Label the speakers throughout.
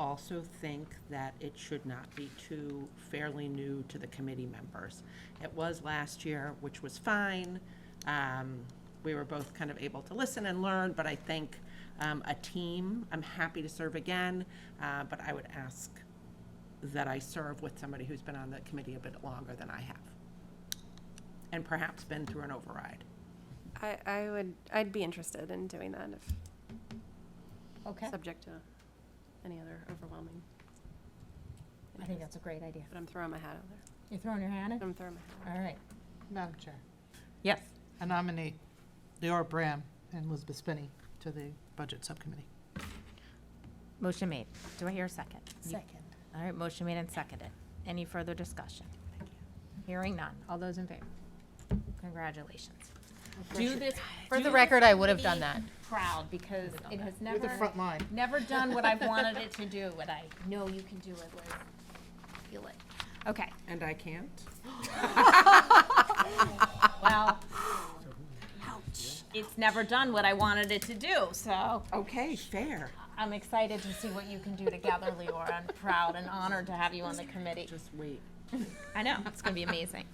Speaker 1: also think that it should not be too fairly new to the committee members. It was last year, which was fine. Um, We were both kind of able to listen and learn, but I think um, a team, I'm happy to serve again, uh, but I would ask that I serve with somebody who's been on the committee a bit longer than I have, and perhaps been through an override.
Speaker 2: I, I would, I'd be interested in doing that if,
Speaker 3: Okay,
Speaker 2: subject to any other overwhelming.
Speaker 3: I think that's a great idea.
Speaker 2: But I'm throwing my hat out there.
Speaker 3: You're throwing your hand in?
Speaker 2: I'm throwing my hat.
Speaker 3: All right.
Speaker 4: Madam Chair,
Speaker 3: Yes.
Speaker 4: I nominate Leora Bram and Elizabeth Spinney to the Budget Subcommittee.
Speaker 5: Motion made. Do I hear a second?
Speaker 3: Second.
Speaker 5: All right, motion made and seconded. Any further discussion? Hearing none. All those in favor? Congratulations. Do this,
Speaker 3: For
Speaker 5: do
Speaker 3: the
Speaker 5: this
Speaker 3: record, I would have done
Speaker 5: committee
Speaker 3: that.
Speaker 5: Proud, because it has
Speaker 4: You're the
Speaker 5: never,
Speaker 4: front line.
Speaker 5: never done what I've wanted it to do, and I know you can do it, Liz. Feel it. Okay,
Speaker 1: And I can't?
Speaker 5: well. It's never done what I wanted it to do, so
Speaker 1: Okay, fair.
Speaker 5: I'm excited to see what you can do together, Leora. I'm proud and honored to have you on the committee.
Speaker 1: Just wait.
Speaker 5: I know. It's going to be amazing.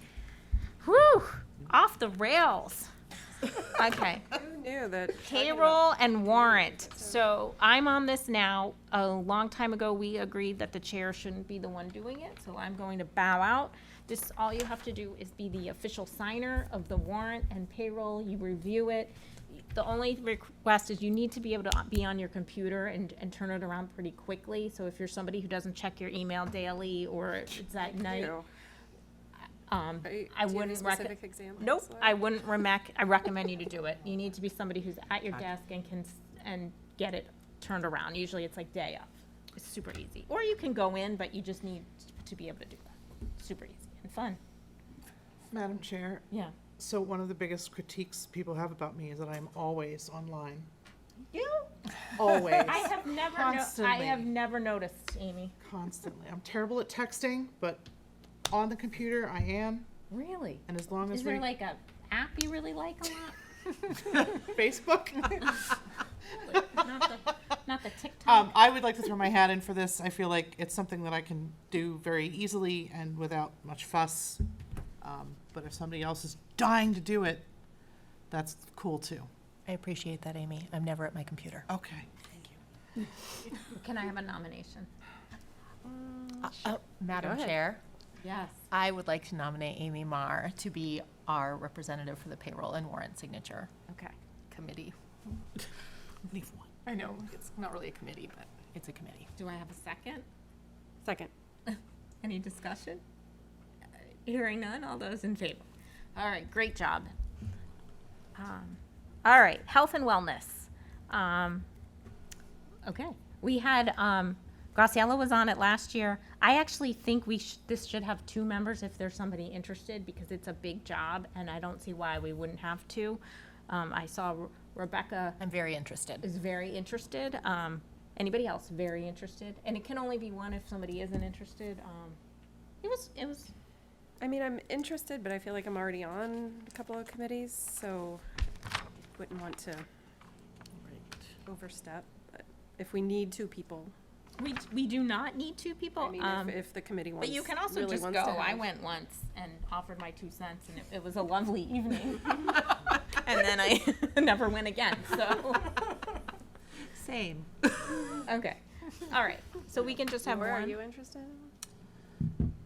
Speaker 5: Whew! Off the rails. Okay.
Speaker 2: Who knew that?
Speaker 5: Payroll and warrant. So I'm on this now. A long time ago, we agreed that the chair shouldn't be the one doing it, so I'm going to bow out. This, all you have to do is be the official signer of the warrant and payroll. You review it. The only request is you need to be able to be on your computer and, and turn it around pretty quickly. So if you're somebody who doesn't check your email daily or it's at night, um, I wouldn't recommend.
Speaker 2: Specific examples?
Speaker 5: Nope,
Speaker 2: Laura?
Speaker 5: I wouldn't remac, I recommend you to do it. You need to be somebody who's at your desk and can, s- and get it turned around. Usually it's like day of. It's super easy. Or you can go in, but you just need to be able to do that. Super easy and fun.
Speaker 4: Madam Chair,
Speaker 5: Yeah.
Speaker 4: so one of the biggest critiques people have about me is that I'm always online.
Speaker 5: You?
Speaker 4: Always,
Speaker 5: I have never, no- I have
Speaker 4: Constantly.
Speaker 5: never noticed, Amy.
Speaker 4: constantly. I'm terrible at texting, but on the computer I am,
Speaker 5: Really?
Speaker 4: and as long
Speaker 5: Is
Speaker 4: as
Speaker 5: there
Speaker 4: we,
Speaker 5: like a app you really like a
Speaker 4: Facebook.
Speaker 5: lot? Not the, not the TikTok?
Speaker 4: Um, I would like to throw my hat in for this. I feel like it's something that I can do very easily and without much fuss. Um, but if somebody else is dying to do it, that's cool too.
Speaker 6: I appreciate that, Amy. I'm never at my computer.
Speaker 4: Okay.
Speaker 5: Can I have a nomination?
Speaker 6: Oh, Madam
Speaker 2: ahead.
Speaker 6: Chair,
Speaker 5: Yes.
Speaker 6: I would like to nominate Amy Marr to be our representative for the payroll and warrant signature
Speaker 5: Okay.
Speaker 6: committee.
Speaker 4: Leave one.
Speaker 6: I know, it's not really a committee, but it's a committee.
Speaker 5: Do I have a second?
Speaker 2: Second.
Speaker 5: Any discussion? Hearing none, all those in favor? All right, great job. Um, All right, health and wellness. Um, Okay, we had, um, Graciela was on it last year. I actually think we, sh- this should have two members if there's somebody interested, because it's a big job, and I don't see why we wouldn't have two. Um, I saw Re- Rebecca
Speaker 6: I'm very interested.
Speaker 5: is very interested. Um, anybody else very interested? And it can only be one if somebody isn't interested. Um, it was, it was,
Speaker 2: I mean, I'm interested, but I feel like I'm already on a couple of committees, so wouldn't want to overstep. But If we need two people,
Speaker 5: we, we do not need two people.
Speaker 2: I mean,
Speaker 5: um,
Speaker 2: if, if the committee wants,
Speaker 5: but
Speaker 2: really
Speaker 5: you can
Speaker 2: wants
Speaker 5: also
Speaker 2: to have.
Speaker 5: just go. I went once and offered my two cents, and it, it was a lovely evening. and then I never went again. So,
Speaker 1: Same.
Speaker 5: okay. All right. So we can just have
Speaker 2: Laura, are
Speaker 5: one.
Speaker 2: you interested?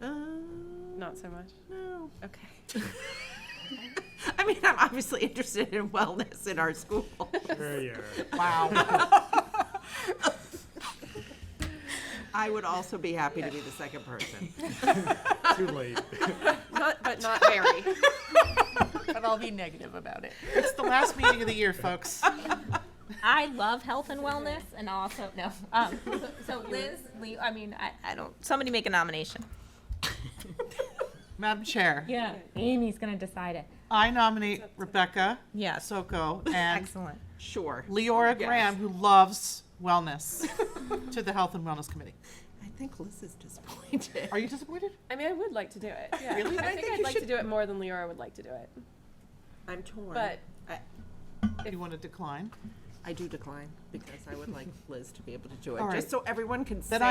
Speaker 1: Um,
Speaker 2: Not so much.
Speaker 1: no.
Speaker 2: Okay.
Speaker 1: I mean, I'm obviously interested in wellness in our school.
Speaker 4: Wow.
Speaker 1: I would also be happy to be the second person.
Speaker 7: Too late.
Speaker 2: Not, but not very.
Speaker 6: But I'll be negative about it.
Speaker 4: it's the last meeting of the year, folks.
Speaker 5: I love health and wellness, and also no. Um, so, so Liz, Lee, I mean, I, I don't. Somebody make a nomination.
Speaker 4: Madam Chair,
Speaker 5: Yeah, Amy's gonna decide it.
Speaker 4: I nominate Rebecca
Speaker 5: Yes.
Speaker 4: Soko and
Speaker 5: Excellent.
Speaker 1: Sure.
Speaker 4: Leora
Speaker 1: Yes.
Speaker 4: Graham, who loves wellness, to the Health and Wellness Committee.
Speaker 1: I think Liz is disappointed.
Speaker 4: Are you disappointed?
Speaker 2: I mean, I would like to do it. Yeah.
Speaker 4: Really?
Speaker 2: I,
Speaker 4: I
Speaker 2: think,
Speaker 4: think
Speaker 2: I'd
Speaker 4: you
Speaker 2: like to
Speaker 4: should-
Speaker 2: do it more than Leora would like to do it.
Speaker 1: I'm torn.
Speaker 2: But
Speaker 4: You want to decline?
Speaker 1: I do decline because I would like Liz to be able to do it,
Speaker 4: All right.
Speaker 1: just so everyone can say.
Speaker 4: Then